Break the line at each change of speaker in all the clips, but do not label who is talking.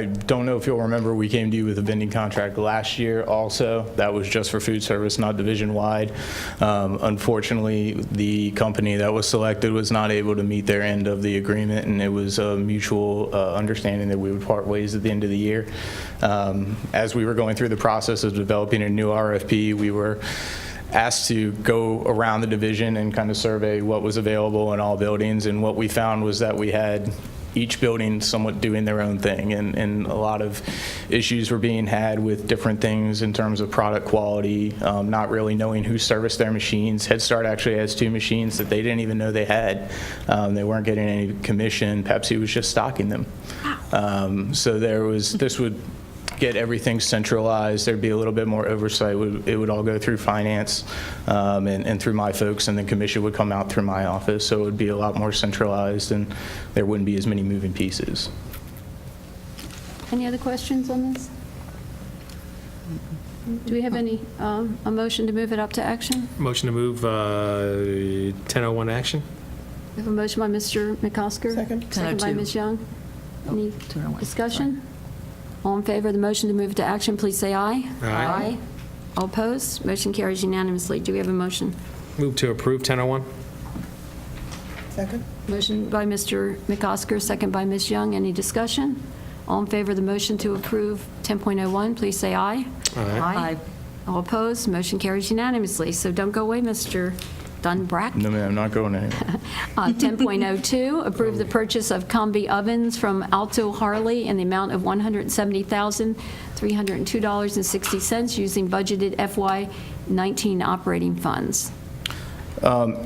I don't know if you'll remember, we came to you with a vending contract last year also. That was just for food service, not division-wide. Um, Unfortunately, the company that was selected was not able to meet their end of the agreement, and it was a mutual uh, understanding that we would part ways at the end of the year. Um, As we were going through the process of developing a new RFP, we were asked to go around the division and kind of survey what was available in all buildings. And what we found was that we had each building somewhat doing their own thing. And, and a lot of issues were being had with different things in terms of product quality, um, not really knowing who serviced their machines. Head Start actually has two machines that they didn't even know they had. Um, they weren't getting any commission. Pepsi was just stocking them. Um, so there was, this would get everything centralized, there'd be a little bit more oversight. Would- It would all go through finance um, and and through my folks, and the commission would come out through my office. So it would be a lot more centralized, and there wouldn't be as many moving pieces.
Any other questions on this? Do we have any, um, a motion to move it up to action?
Motion to move uh, 1001 action?
We have a motion by Mr. McCosker.
Second.
Second by
10:02.
Ms. Young. Any
10:01, sorry.
discussion? All in favor of the motion to move it to action, please say aye.
Aye.
All opposed? Motion carries unanimously. Do we have a motion?
Move to approve 1001?
Second?
Motion by Mr. McCosker, second by Ms. Young. Any discussion? All in favor of the motion to approve 10.01, please say aye.
Aye.
All opposed? Motion carries unanimously. So don't go away, Mr. Dunbrack.
No, ma'am, not going anywhere.
Uh, 10.02, approve the purchase of combi ovens from Alto Harley in the amount of $170,302.60 using budgeted FY19 operating funds.
Um,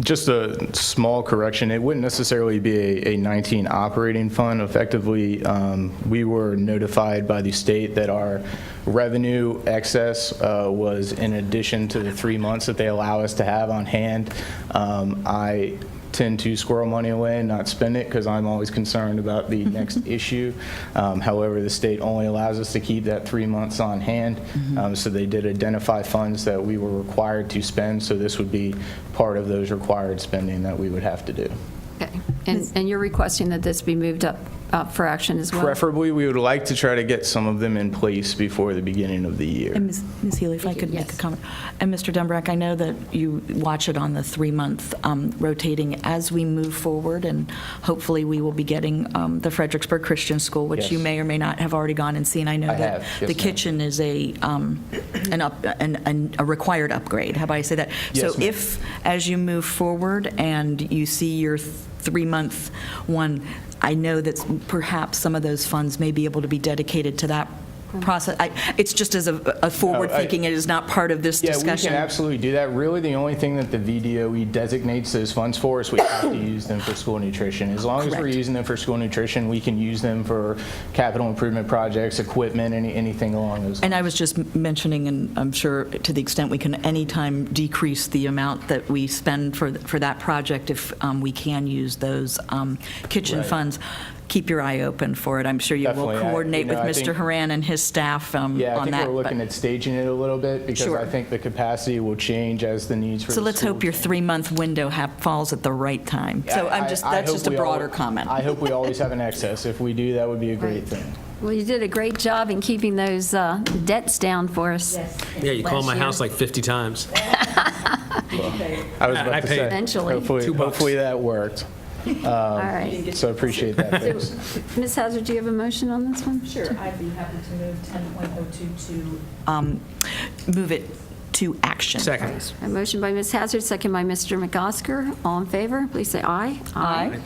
Just a small correction, it wouldn't necessarily be a- a 19 operating fund. Effectively, um, we were notified by the state that our revenue excess uh, was in addition to the three months that they allow us to have on hand. Um, I tend to squirrel money away and not spend it because I'm always concerned about the next issue. Um, However, the state only allows us to keep that three months on hand. Um, So they did identify funds that we were required to spend, so this would be part of those required spending that we would have to do.
Okay. And and you're requesting that this be moved up up for action as well?
Preferably, we would like to try to get some of them in place before the beginning of the year.
And Ms. Ms. Healy, if I could make a
Yes.
comment. And Mr. Dumbrack, I know that you watch it on the three-month um, rotating as we move forward, and hopefully we will be getting um, the Fredericksburg Christian School, which you
Yes.
may or may not have already gone and seen. I know
I have,
that
yes,
the
ma'am.
kitchen is a, um, an up, an- an- a required upgrade, how about I say that?
Yes,
So
ma'am.
if, as you move forward and you see your th- three-month one, I know that perhaps some of those funds may be able to be dedicated to that process. I- It's just as a a forward thinking, it is not part of this
Oh, Yeah, we can
discussion.
absolutely do that. Really, the only thing that the VDOE E designates those funds for is we have to use them for school nutrition. As long as we're
Correct.
using them for school nutrition, we can use them for capital improvement projects, equipment, any, anything along those lines.
And I was just mentioning, and I'm sure to the extent we can anytime decrease the amount that we spend for, for that project, if um, we can use those um, kitchen
Right.
funds, keep your eye open for it. I'm sure you
Definitely. I-
will
you
coordinate with
know, I
Mr.
think-
Haran and his staff um, on that.
Yeah, I think we're
but-
looking at staging it a little bit because
Sure.
I think the capacity will change as the needs for the
So let's hope
schools
your
change.
three-month window hap- falls at the right time. So
I-
I'm just,
I- I
that's
hope
just a
we al-
broader comment.
I hope we always have an excess. If we do, that would be a great
Right.
thing.
Well, you did a great job in keeping those uh, debts down for us
Yeah, you called my
Last year.
house like 50 times.
I was
I- I
about to
paid
say,
eventually.
hopefully,
Two bucks.
hopefully that worked.
All right.
So I appreciate that. Thanks.
Ms. Hazard, do you have a motion on this one?
Sure, I'd be happy to move 10.02 to
Um, Move it to action.
Second.
A motion by Ms. Hazard, second by Mr. McCosker. All in favor, please say aye.
Aye.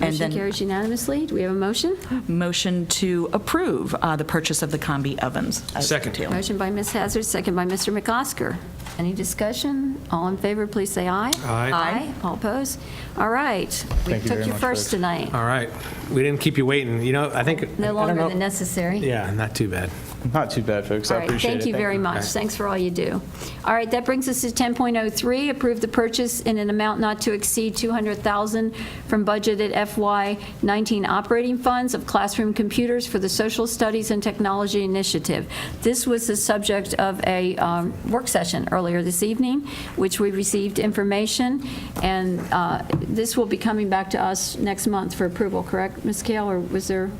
And
Motion
then
carries unanimously. Do we have a motion?
motion to approve uh, the purchase of the combi ovens. as
Second.
detailed.
Motion by Ms. Hazard, second by Mr. McCosker. Any discussion? All in favor, please say aye.
Aye.
Aye. All opposed? All right.
Thank you
We
very
took you
much,
first
folks.
tonight.
All right. We didn't keep you waiting, you know, I think. I
No
don't
longer
know-
than necessary.
Yeah, not too bad.
Not too bad, folks. I appreciate it.
All right, thank you very much. Thanks for all you do. All right, that brings us to 10.03, approve the purchase in an amount not to exceed 200,000 from budgeted FY19 operating funds of classroom computers for the Social Studies and Technology Initiative. This was the subject of a um, work session earlier this evening, which we received information, and uh, this will be coming back to us next month for approval, correct, Ms. Kale, or was there?